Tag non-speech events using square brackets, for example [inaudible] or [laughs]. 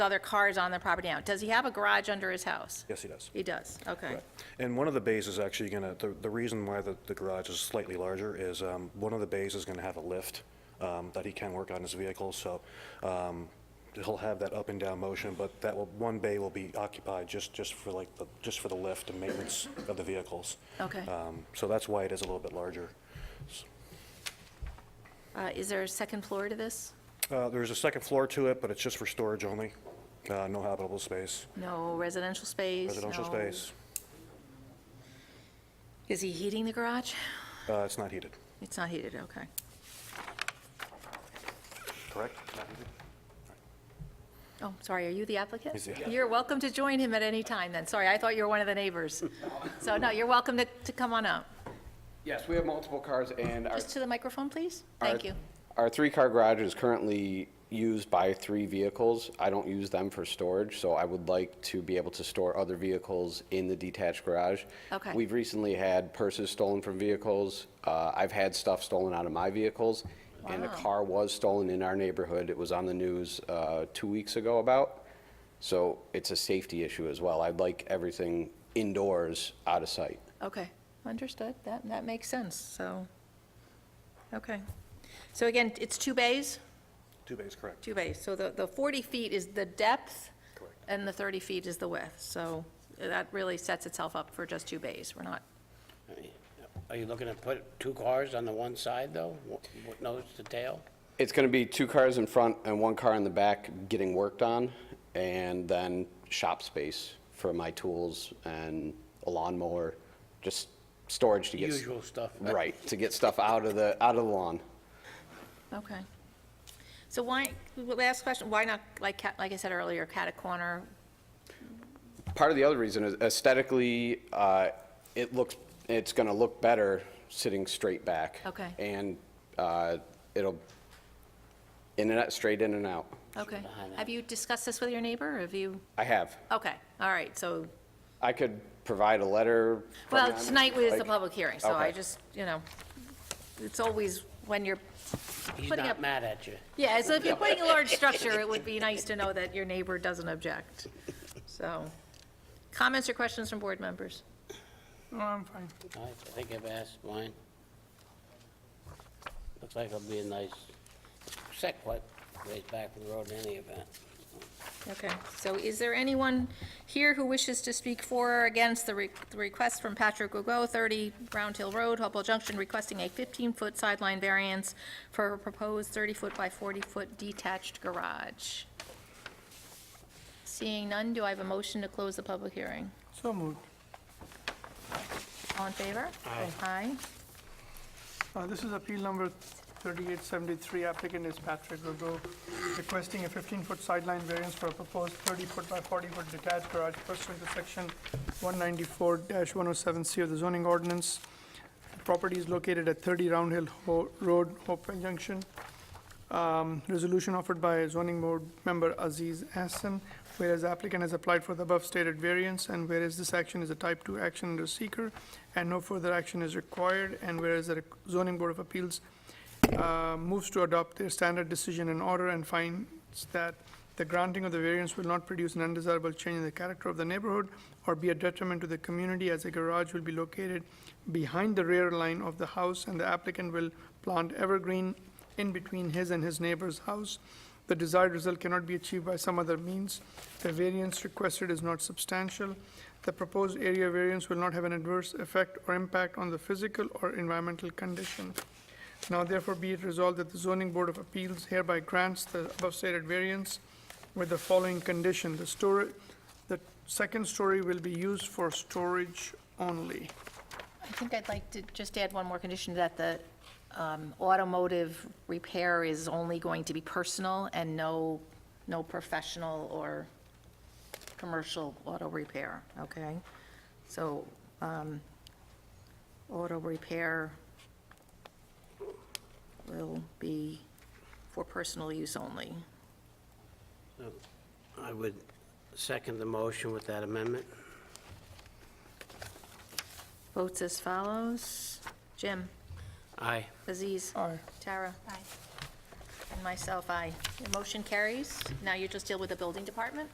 other cars on the property now. Does he have a garage under his house? Yes, he does. He does, okay. Right. And one of the bays is actually going to, the, the reason why the, the garage is slightly larger is, um, one of the bays is going to have a lift, um, that he can work on his vehicle, so, um, he'll have that up and down motion, but that will, one bay will be occupied just, just for like, the, just for the lift and maintenance of the vehicles. Okay. Um, so that's why it is a little bit larger. Uh, Is there a second floor to this? Uh, there's a second floor to it, but it's just for storage only, uh, no habitable space, No residential space? residential no- space. Is he heating the garage? Uh, it's not heated, It's not heated, okay. correct? Not heated? Oh, sorry, are you the applicant? He's the- You're welcome to join him at any time then. Sorry, I thought you were one of the [laughs] neighbors. So no, you're welcome to, to come on up. Yes, we have multiple cars and our. Just to the microphone, please? our- Thank you. Our three-car garage is currently used by three vehicles. I don't use them for storage, so I would like to be able to store other vehicles in the detached garage. Okay. We've recently had purses stolen from vehicles. Uh, I've had stuff stolen out of my vehicles. And a Wow. car was stolen in our neighborhood. It was on the news uh, two weeks ago about. So it's a safety issue as well. I'd like everything indoors, out of sight. Okay, understood. That, that makes sense, so, okay. So again, it's two bays? Two bays, correct. Two bays. So the, the 40 feet is the depth? Correct. And the 30 feet is the width. So that really sets itself up for just two bays. We're not, Are you looking to put two cars on the one side, though? Wh- wh- Nose to tail? It's going to be two cars in front and one car in the back getting worked on, and then shop space for my tools and a lawnmower, just storage to get. s- Usual stuff. Right, to get stuff out of the, out of the lawn. okay. So why, last question, why not, like, Cat- like I said earlier, cat a corner? Part of the other reason is aesthetically, uh, it looks, it's going to look better sitting straight back. Okay. And uh, it'll, in and out, straight in and out. Okay. Have you discussed this with your neighbor? or Have you, I have. okay, all right, so, I could provide a letter. from well, them, tonight was the like- public hearing, so I Okay. just, you know, it's always when you're He's Putting up- not mad at you. Yeah, so if you're putting a large structure, it would be nice to know that your neighbor doesn't object. So, comments or questions from board members? I think I've asked mine. Looks like it'll be a nice, set quite ways back from the road in any event. Okay, so is there anyone here who wishes to speak for or against the re- the request from Patrick Gogo, 30 Brown Hill Road, Hopewell Junction, requesting a 15-foot sideline variance for a proposed 30-foot by 40-foot detached garage? Seeing none, do I have a motion to close the public hearing? So moved. All in favor? Aye. Aye. Uh, This is appeal number 3873. Applicant is Patrick Gogo, requesting a 15-foot sideline variance for a proposed 30-foot by 40-foot detached garage pursuant to section 194-107C of the zoning ordinance. The Property is located at 30 Round Hill Ho- Road, Hopewell Junction. resolution offered by zoning board member Aziz Hassan, whereas the applicant has applied for the above stated variance, and whereas this action is a type two action under seeker, and no further action is required, and whereas the zoning board of appeals uh, moves to adopt their standard decision and order and finds that the granting of the variance will not produce an undesirable change in the character of the neighborhood or be a detriment to the community as a garage will be located behind the rear line of the house and the applicant will plant evergreen in between his and his neighbor's house. The desired result cannot be achieved by some other means. The variance requested is not substantial. The proposed area variance will not have an adverse effect or impact on the physical or environmental condition. Now therefore be it resolved that the zoning board of appeals hereby grants the above stated variance with the following condition. The store, the second story will be used for storage only. I think I'd like to just add one more condition, that the um, automotive repair is only going to be personal and no, no professional or commercial auto repair, okay? So, um, auto repair will be for personal use only. I would second the motion with that amendment. Votes as follows. Jim? Aye. Aziz? Aye. Tara? Aye. And myself, aye. The motion carries. Now you just deal with the building department?